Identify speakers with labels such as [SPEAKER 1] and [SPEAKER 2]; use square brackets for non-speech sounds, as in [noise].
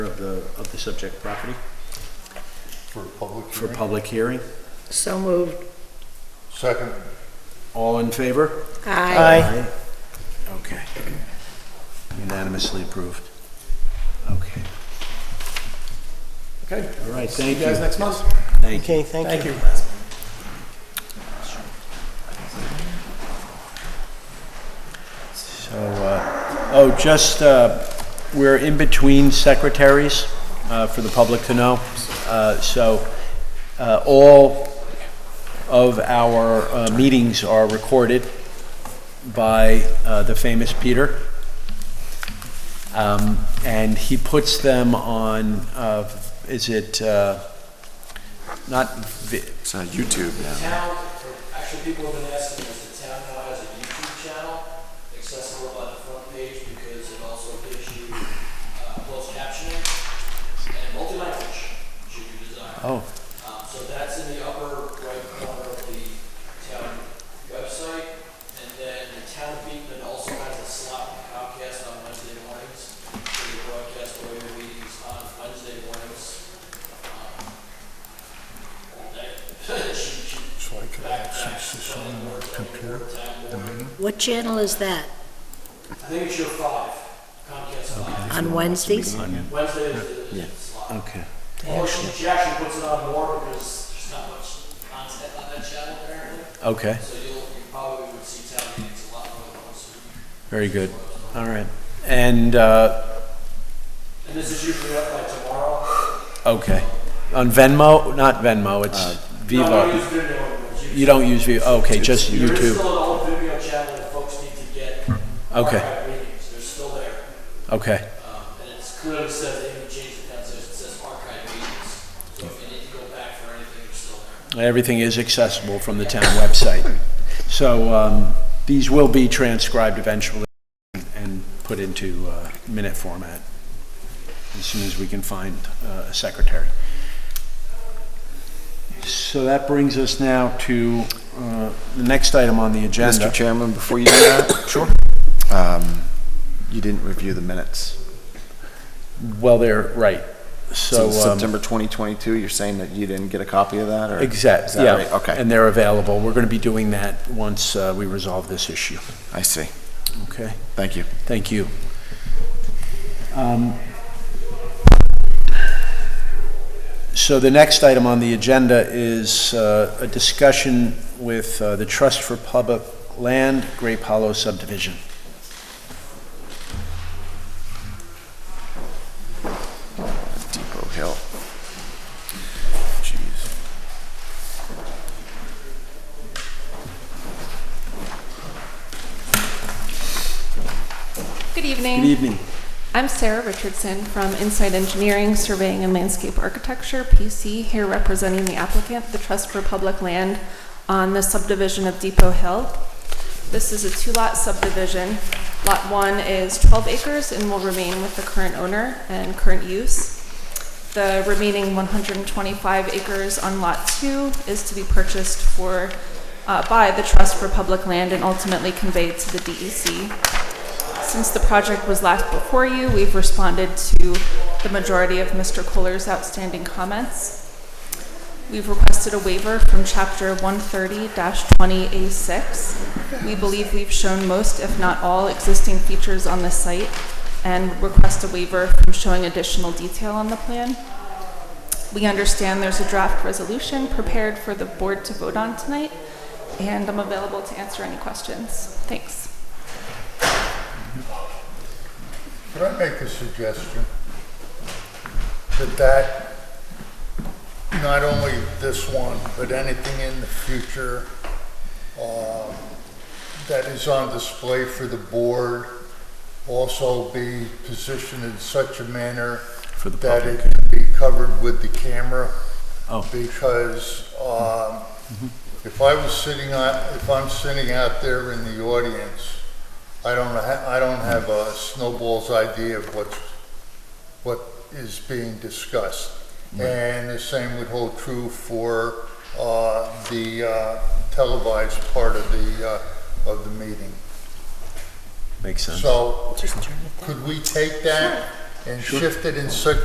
[SPEAKER 1] of the, of the subject property
[SPEAKER 2] For public
[SPEAKER 1] for
[SPEAKER 2] hearing?
[SPEAKER 1] public hearing.
[SPEAKER 3] So moved.
[SPEAKER 2] Second,
[SPEAKER 1] All in favor?
[SPEAKER 3] Aye.
[SPEAKER 1] Aye. Okay. Unanimously approved. Okay.
[SPEAKER 4] Okay,
[SPEAKER 1] All right,
[SPEAKER 4] see
[SPEAKER 1] thank
[SPEAKER 4] you guys
[SPEAKER 1] you.
[SPEAKER 4] next month.
[SPEAKER 1] Thank you.
[SPEAKER 5] Okay, thank
[SPEAKER 4] Thank
[SPEAKER 5] you.
[SPEAKER 4] you.
[SPEAKER 1] So, uh, oh, just, uh, we're in between secretaries uh, for the public to know. Uh, So uh, all of our uh, meetings are recorded by uh, the famous Peter. Um, And he puts them on, uh, is it, uh, not, vi-
[SPEAKER 6] It's on YouTube now.
[SPEAKER 7] town, actually, people have been asking us, the town now has a YouTube channel accessible by the front page because it also gives you uh, closed captioning and multi-language, should you desire.
[SPEAKER 1] oh,
[SPEAKER 7] Um, So that's in the upper right corner of the town website. And then the town of Beekman also has a slot for Comcast on Wednesday mornings. So they broadcast all your meetings on Wednesday mornings. um, All day. [laughs] She- she-
[SPEAKER 2] so I could access this on my computer, the meeting.
[SPEAKER 3] What channel is that?
[SPEAKER 7] I think it's your five, Comcast five.
[SPEAKER 3] On Wednesdays?
[SPEAKER 7] Wednesday is the slot.
[SPEAKER 1] okay.
[SPEAKER 7] Or she, she actually puts it on more because there's not much content on that channel apparently.
[SPEAKER 1] Okay,
[SPEAKER 7] So you'll, you probably would see town meetings a lot more than once a week.
[SPEAKER 1] very good. All right. And uh,
[SPEAKER 7] And this is usually up by tomorrow.
[SPEAKER 1] Okay. On Venmo, not Venmo, it's
[SPEAKER 7] No, I don't
[SPEAKER 1] Vivo.
[SPEAKER 7] use Vimeo anymore, it's YouTube.
[SPEAKER 1] You don't use Vivo, okay, just
[SPEAKER 7] There is
[SPEAKER 1] YouTube.
[SPEAKER 7] still an old Vimeo channel that folks need to get.
[SPEAKER 1] Okay.
[SPEAKER 7] archived Meetings, they're still there.
[SPEAKER 1] Okay,
[SPEAKER 7] Um, and it clearly says, they even changed the concept, it says archive meetings. So if you need to go back for anything, they're still there.
[SPEAKER 1] everything is accessible from the town website. So um, these will be transcribed eventually and put into uh, minute format as soon as we can find uh, a secretary. So that brings us now to uh, the next item on the agenda.
[SPEAKER 6] Mr. Chairman, before you
[SPEAKER 1] [coughs]
[SPEAKER 6] do that. Sure. Um, you didn't review the minutes.
[SPEAKER 1] Well, they're, right, so.
[SPEAKER 6] Since
[SPEAKER 1] um,
[SPEAKER 6] September 2022, you're saying that you didn't get a copy of that, or? Is
[SPEAKER 1] Exactly,
[SPEAKER 6] that right?
[SPEAKER 1] yeah.
[SPEAKER 6] Okay,
[SPEAKER 1] And they're available. We're going to be doing that once uh, we resolve this issue.
[SPEAKER 6] I see.
[SPEAKER 1] Okay,
[SPEAKER 6] Thank you.
[SPEAKER 1] thank you. Um, So the next item on the agenda is uh, a discussion with uh, the Trust for Public Land, Grape Hollow subdivision.
[SPEAKER 6] Depot Hill. Jeez.
[SPEAKER 8] Good
[SPEAKER 1] Good
[SPEAKER 8] evening.
[SPEAKER 1] evening.
[SPEAKER 8] I'm Sarah Richardson from Inside Engineering, Surveying and Landscape Architecture, PC, here representing the applicant, the Trust for Public Land, on the subdivision of Depot Hill. This is a two-lot subdivision. Lot 1 is 12 acres and will remain with the current owner and current use. The remaining 125 acres on Lot 2 is to be purchased for, uh, by the Trust for Public Land and ultimately conveyed to the DEC. Since the project was last before you, we've responded to the majority of Mr. Kohler's outstanding comments. We've requested a waiver from Chapter 130-20A6. We believe we've shown most, if not all, existing features on the site and request a waiver from showing additional detail on the plan. We understand there's a draft resolution prepared for the board to vote on tonight, and I'm available to answer any questions. Thanks.
[SPEAKER 2] Can I make a suggestion? That that, not only this one, but anything in the future uh, that is on display for the board also be positioned in such a manner
[SPEAKER 1] For the
[SPEAKER 2] that
[SPEAKER 1] public.
[SPEAKER 2] it can be covered with the camera.
[SPEAKER 1] Oh.
[SPEAKER 2] Because um, if I was sitting on, if I'm sitting out there in the audience, I don't, ha- I don't have a snowball's idea of what's, what is being discussed. And the same would hold true for uh, the uh, televised part of the, uh, of the meeting.
[SPEAKER 1] Makes sense.
[SPEAKER 2] So could we take that and shift it in such